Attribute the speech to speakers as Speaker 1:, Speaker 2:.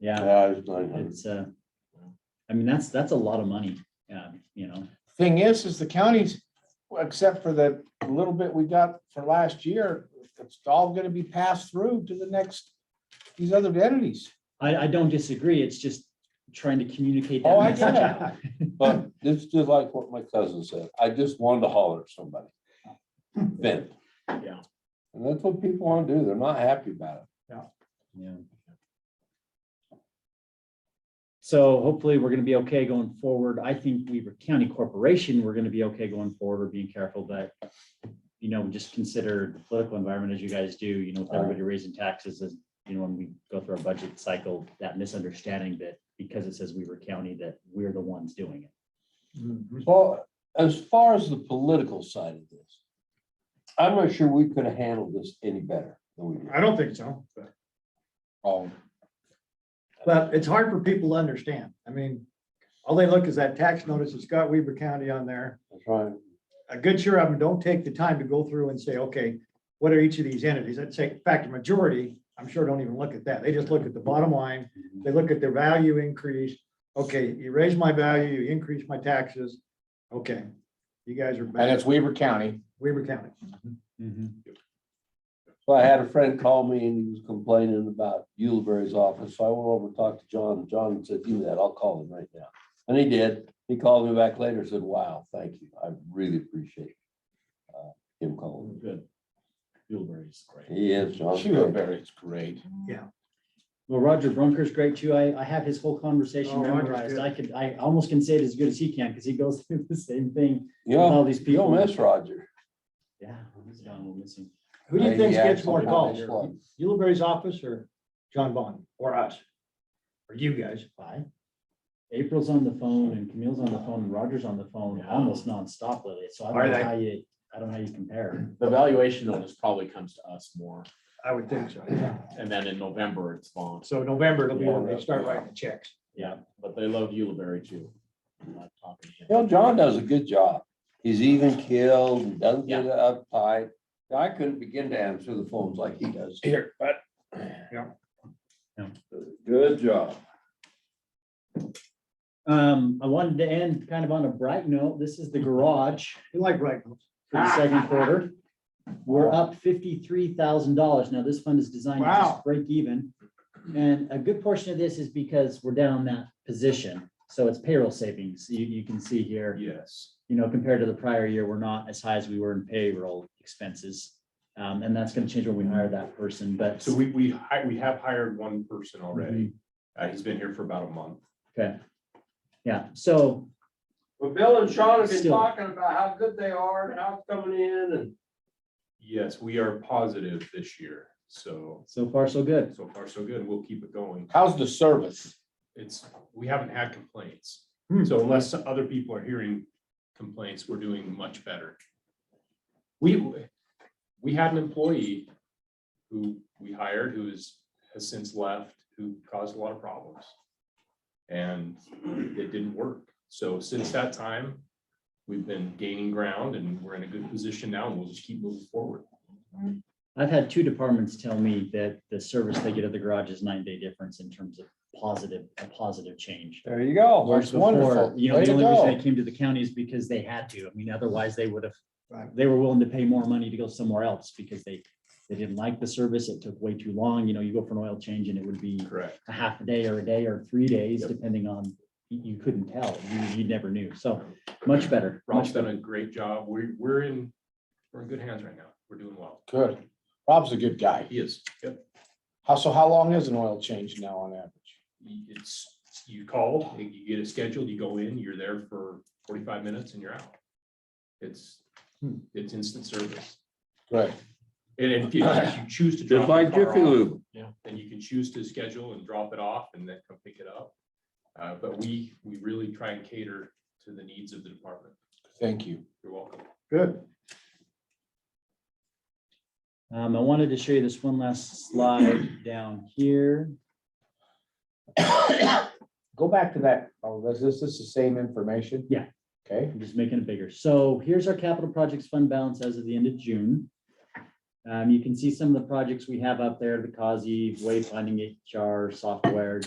Speaker 1: yeah,
Speaker 2: Yeah, it's nine hundred.
Speaker 1: it's, uh, I mean, that's, that's a lot of money, yeah, you know,
Speaker 3: Thing is, is the counties, except for the little bit we got for last year, it's all gonna be passed through to the next, these other entities.
Speaker 1: I, I don't disagree, it's just trying to communicate. that
Speaker 3: Oh, I
Speaker 1: message
Speaker 3: get
Speaker 1: out.
Speaker 3: it.
Speaker 2: But it's just like what my cousin said, I just wanted to holler at somebody. Vent.
Speaker 1: Yeah.
Speaker 2: And that's what people want to do. They're not happy about it.
Speaker 1: Yeah. So hopefully we're gonna be okay going forward. I think Weaver County Corporation, we're gonna be okay going forward. We're being careful, but you know, just consider the political environment as you guys do, you know, with everybody raising taxes, as you know, when we go through our budget cycle, that misunderstanding that because it says Weaver County, that we're the ones doing it.
Speaker 2: Well, as far as the political side of this, I'm not sure we could have handled this any better than we did.
Speaker 4: I don't think so, but,
Speaker 2: Um,
Speaker 4: but it's hard for people to understand. I mean, all they look is that tax notice that's got Weaver County on there.
Speaker 2: That's right.
Speaker 4: A good share of them don't take the time to go through and say, okay, what are each of these entities? I'd say, in fact, the majority, I'm sure don't even look at that. They just look at the bottom line. They look at their value increase. Okay, you raise my value, you increase my taxes. Okay, you guys are
Speaker 3: And
Speaker 4: back,
Speaker 3: it's Weaver County.
Speaker 4: Weaver County. Mm-hmm.
Speaker 2: So I had a friend call me and he was complaining about Yuleberry's office. So I went over and talked to John. and John said, do that. I'll call him right now. And he did. He called me back later and said, wow, thank you. I really appreciate uh, him calling.
Speaker 1: Good. Bilberry is great.
Speaker 2: He is, John.
Speaker 3: is great.
Speaker 1: Well, Roger Brunker's great too. I, I have his whole conversation
Speaker 4: Oh, Roger's
Speaker 1: memorized.
Speaker 4: good.
Speaker 1: I could, I almost can say it as good as he can because he goes through the same thing with
Speaker 2: You know,
Speaker 1: all
Speaker 4: Um,
Speaker 1: these
Speaker 2: you
Speaker 1: people.
Speaker 2: don't miss Roger. Uh,
Speaker 1: Yeah, he's gone, we're missing.
Speaker 4: Who do you think gets more calls?
Speaker 2: Yeah.
Speaker 4: Yuleberry's office or John Bond or us? Or you guys?
Speaker 1: Bye. April's on the phone and Camille's on the phone and Roger's on the phone almost nonstop lately, so I
Speaker 4: Are
Speaker 1: don't know
Speaker 4: they?
Speaker 1: how you, I don't know how you compare.
Speaker 5: The valuation notice probably comes to us more,
Speaker 4: I would think so.
Speaker 5: and then in November it's bonds,
Speaker 4: So November, it'll be when they start writing the checks.
Speaker 5: yeah, but they love Uliberry too. I'm not talking to him.
Speaker 2: You know, John does a good job. He's even killed, and doesn't get uptight. I couldn't begin to answer the phones like he does.
Speaker 4: Here, but.
Speaker 2: Good job.
Speaker 1: Um, I wanted to end kind of on a bright note. This is the garage
Speaker 4: You like writing.
Speaker 1: for the second quarter. We're up fifty-three thousand dollars. Now, this fund is designed to
Speaker 4: Wow.
Speaker 1: just break even. And a good portion of this is because we're down that position, so it's payroll savings. You, you can see here.
Speaker 5: Yes.
Speaker 1: you know, compared to the prior year, we're not as high as we were in payroll expenses. Um, and that's gonna change when we hire that person, but.
Speaker 6: So we, we, hi- we have hired one person already.
Speaker 5: Mm-hmm.
Speaker 6: Uh, he's been here for about a month.
Speaker 1: Okay. Yeah, so,
Speaker 2: Well, Bill and Sean have been
Speaker 1: Still.
Speaker 2: talking about how good they are and how it's coming in and.
Speaker 6: Yes, we are positive this year. So,
Speaker 1: so far, so good.
Speaker 6: so far so good. We'll keep it going.
Speaker 3: How's the service?
Speaker 6: It's, we haven't had complaints.
Speaker 4: Hmm.
Speaker 6: So unless other people are hearing complaints, we're doing much better. We, we had an employee who we hired, who is, has since left, who caused a lot of problems. And it didn't work. So since that time, we've been gaining ground and we're in a good position now and we'll just keep moving forward.
Speaker 1: I've had two departments tell me that the service they get at the garage is nine day difference in terms of positive, a positive change.
Speaker 3: There you go.
Speaker 1: Whereas
Speaker 3: Oh, That's
Speaker 1: before,
Speaker 3: wonderful.
Speaker 1: you know,
Speaker 3: Way
Speaker 1: the
Speaker 3: to
Speaker 1: only reason
Speaker 3: go.
Speaker 1: they came to the county is because they had to. I mean, otherwise they would have,
Speaker 4: Right.
Speaker 1: they were willing to pay more money to go somewhere else because they, they didn't like the service. It took way too long. You know, you go for an oil change and it would be
Speaker 6: Correct.
Speaker 1: a half a day or a day or three days,
Speaker 6: Yep.
Speaker 1: depending on, you, you couldn't tell, you, you never knew. So much better,
Speaker 6: Rob's
Speaker 1: much
Speaker 6: done
Speaker 1: better.
Speaker 6: a great job. We're, we're in, we're in good hands right now. We're doing well.
Speaker 3: Good. Rob's a good guy.
Speaker 6: He is. Yep.
Speaker 3: How, so how long is an oil change now on average?
Speaker 6: you- it's, you call, you get it scheduled, you go in, you're there for forty-five minutes and you're out. It's,
Speaker 2: Hmm.
Speaker 6: it's instant service.
Speaker 3: Good.
Speaker 6: And if you if you choose to. drop
Speaker 2: Just
Speaker 6: your
Speaker 2: like
Speaker 6: car
Speaker 2: Jiffy
Speaker 6: off,
Speaker 2: Lube.
Speaker 6: Yeah, then you can choose to schedule and drop it off and then come pick it up. Uh, but we, we really try and cater to the needs of the department.
Speaker 3: Thank you.
Speaker 6: You're welcome.
Speaker 4: Good.
Speaker 1: Um, I wanted to show you this one last slide down here.
Speaker 3: Go back to that. Oh, this, this is the same information?
Speaker 1: Yeah.
Speaker 3: Okay.
Speaker 1: I'm just making it bigger. So here's our capital projects fund balance as of the end of June. Um, you can see some of the projects we have up there, the COSI, wayfinding HR, software,